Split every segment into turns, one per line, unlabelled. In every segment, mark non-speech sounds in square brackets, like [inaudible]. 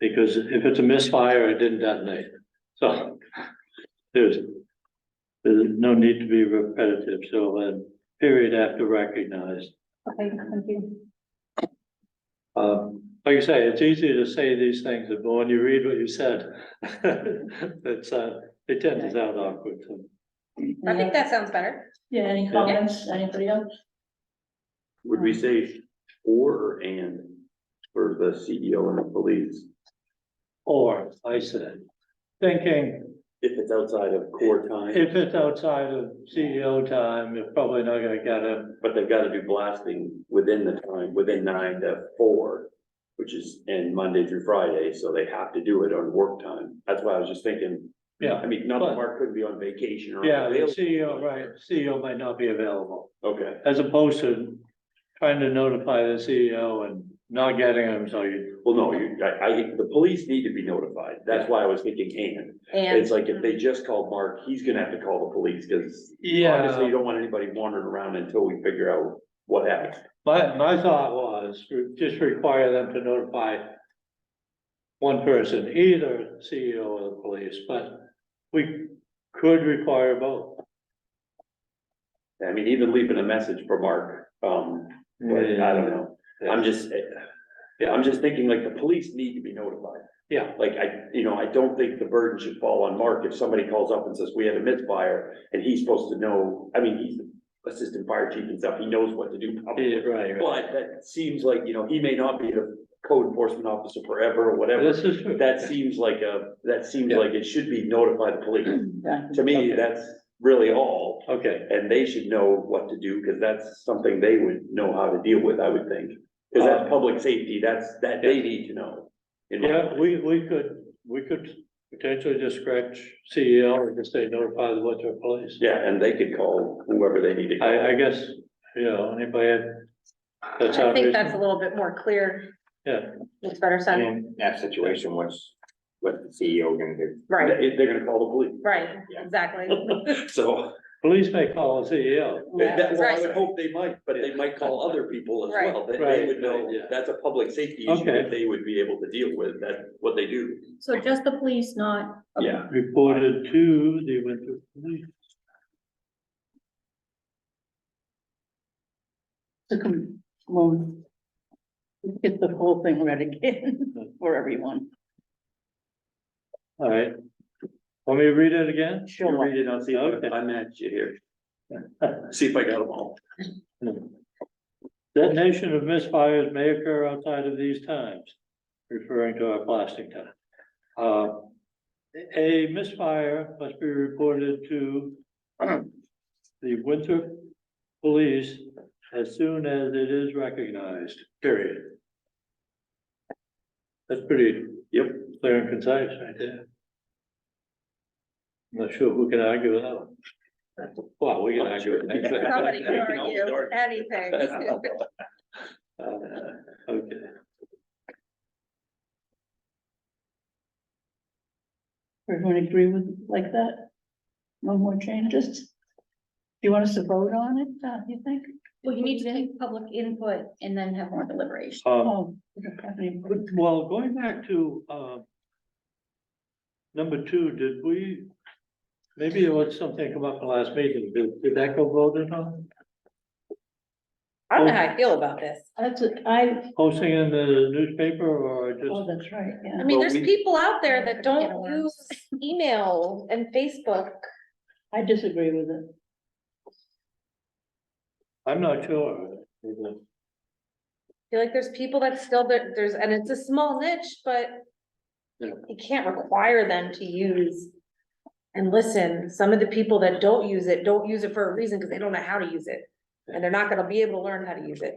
Because if it's a misfire, it didn't detonate, so there's. There's no need to be repetitive, so then period after recognized.
Okay, thank you.
Um, like you say, it's easy to say these things, but when you read what you said, [laughs] it's, uh, it tends to sound awkward. so.
I think that sounds better.
Yeah, any comments, anybody else?
Would we say or or and for the CEO and the police?
Or, I said, thinking,
If it's outside of core time,
if it's outside of CEO time, you're probably not gonna get it.
but they've got to do blasting within the time, within nine to four, which is in Monday through Friday, so they have to do it on work time. That's why I was just thinking.
Yeah,
I mean, not that Mark couldn't be on vacation or.
yeah, the
unavailable.
CEO, right, CEO might not be available.
Okay,
As opposed to trying to notify the CEO and not getting him, so you,
well, no, you, I, I, the police need to be notified. That's why I was thinking and. It's like if they just called Mark, he's gonna have to call the police, cause Obviously, you
yeah.
don't want anybody wandering around until we figure out what happened.
My, my thought was, re- just require them to notify one person, either CEO or the police, but we could require both.
I mean, even leaving a message for Mark, um, but I don't know. I'm just, eh, yeah, I'm just thinking like the police need to be notified.
Yeah.
Like I, you know, I don't think the burden should fall on Mark if somebody calls up and says, we had a misfire and he's supposed to know, I mean, he's the assistant fire chief and stuff, he knows what to do.
Yeah, right, right.
But that seems like, you know, he may not be the code enforcement officer forever or whatever.
This is true.
That seems like a, that seems like it should be notify the police.
Yeah.
To me,
Okay.
that's really all,
Okay,
and they should know what to do, because that's something they would know how to deal with, I would think. Because that's public safety, that's, that they need to know. in my
yeah,
opinion.
we, we could, we could potentially just scratch CEO and just say notify the Winter Police.
Yeah, and they could call whoever they need to call.
I, I guess, you know, anybody had- that's how.
I think that's a little bit more clear.
Yeah.
Makes better sense.
In that situation, what's, what's the CEO gonna do?
Right,
They- They're gonna call the
right,
Yeah.
[laughs]
exactly.
police, so,
Police may call a CEO.
that, well, I would
Right.
hope they might, but they might call other people as
Right.
well, that they
Right,
would know,
right, yeah.
that's a public safety issue
Okay.
that they would be able to deal with, that's what they do,
So just the police, not.
yeah.
Reported to the Winter Police.
to come, well, get the whole thing read again [laughs] for everyone.
All right. Want me to read it again?
You
Sure.
read it, I'll see,
Okay.
if I match you here. See if I got them all.
Detonation of misfires may occur outside of these times, referring to our plastic time. Uh, A misfire must be reported to [clears throat] the Winthrop Police as soon as it is recognized, period. That's pretty.
Yep.
Clear and concise right there. Not sure who can argue with that one. [laughs] Well, we can argue with that.
Somebody
You
can
can always
argue
argue. [laughs]
anything. [laughs]
Uh, [laughs] Okay.
Everyone agree with like that? No more changes? Do you want us to vote on it, uh, you think?
Well, you need to take public input and then have more deliberation.
Um,
Oh, we don't have any-
but- well, going back to, uh, number two, did we, maybe it was something come up in the last meeting, did, did that go voted on?
I don't know how I feel about this.
That's, a- I,
Posting in the newspaper or
oh,
just,
that's right,
I
yeah.
mean,
Well,
there's
we-
people out there that
Yeah.
don't use email and Facebook.
I disagree with it.
I'm not sure. Well,
I feel like there's people that still, there- there's, and it's a small niche, but
Yeah.
you can't require them to use and listen. Some of the people that don't use it, don't use it for a reason because they don't know how to use it. And they're not gonna be able to learn how to use it.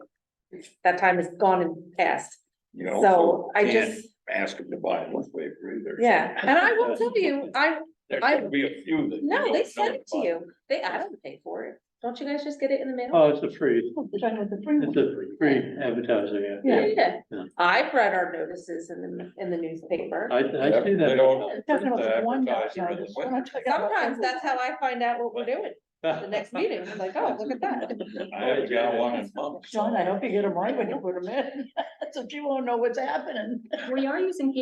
That time is gone and past.
You know,
So I
can't
just,
Ask them to buy it once they've read it.
yeah, and I will tell you, I,
There
I-
could be a few that.
no,
don't
they send it to
notify.
you. They, I don't pay for it. Don't you guys just get it in the mail?
Oh, it's a free,
Oh, They're talking about the free
it's
one.
a free- free advertising, yeah.
Yeah,
Yeah.
I've read our notices in the, in the newspaper.
I, I see
They don't-
[laughs] that.
They're talking about the one that's
Advertising
out.
in the
We're not talking about-
Sometimes that's how I find out what we're doing. the next meeting, I'm like, oh, look at that.
[laughs]
I haven't got one in
[laughs]
months.
John, I hope you get them right when you put them in. So she won't know what's happening.
We are using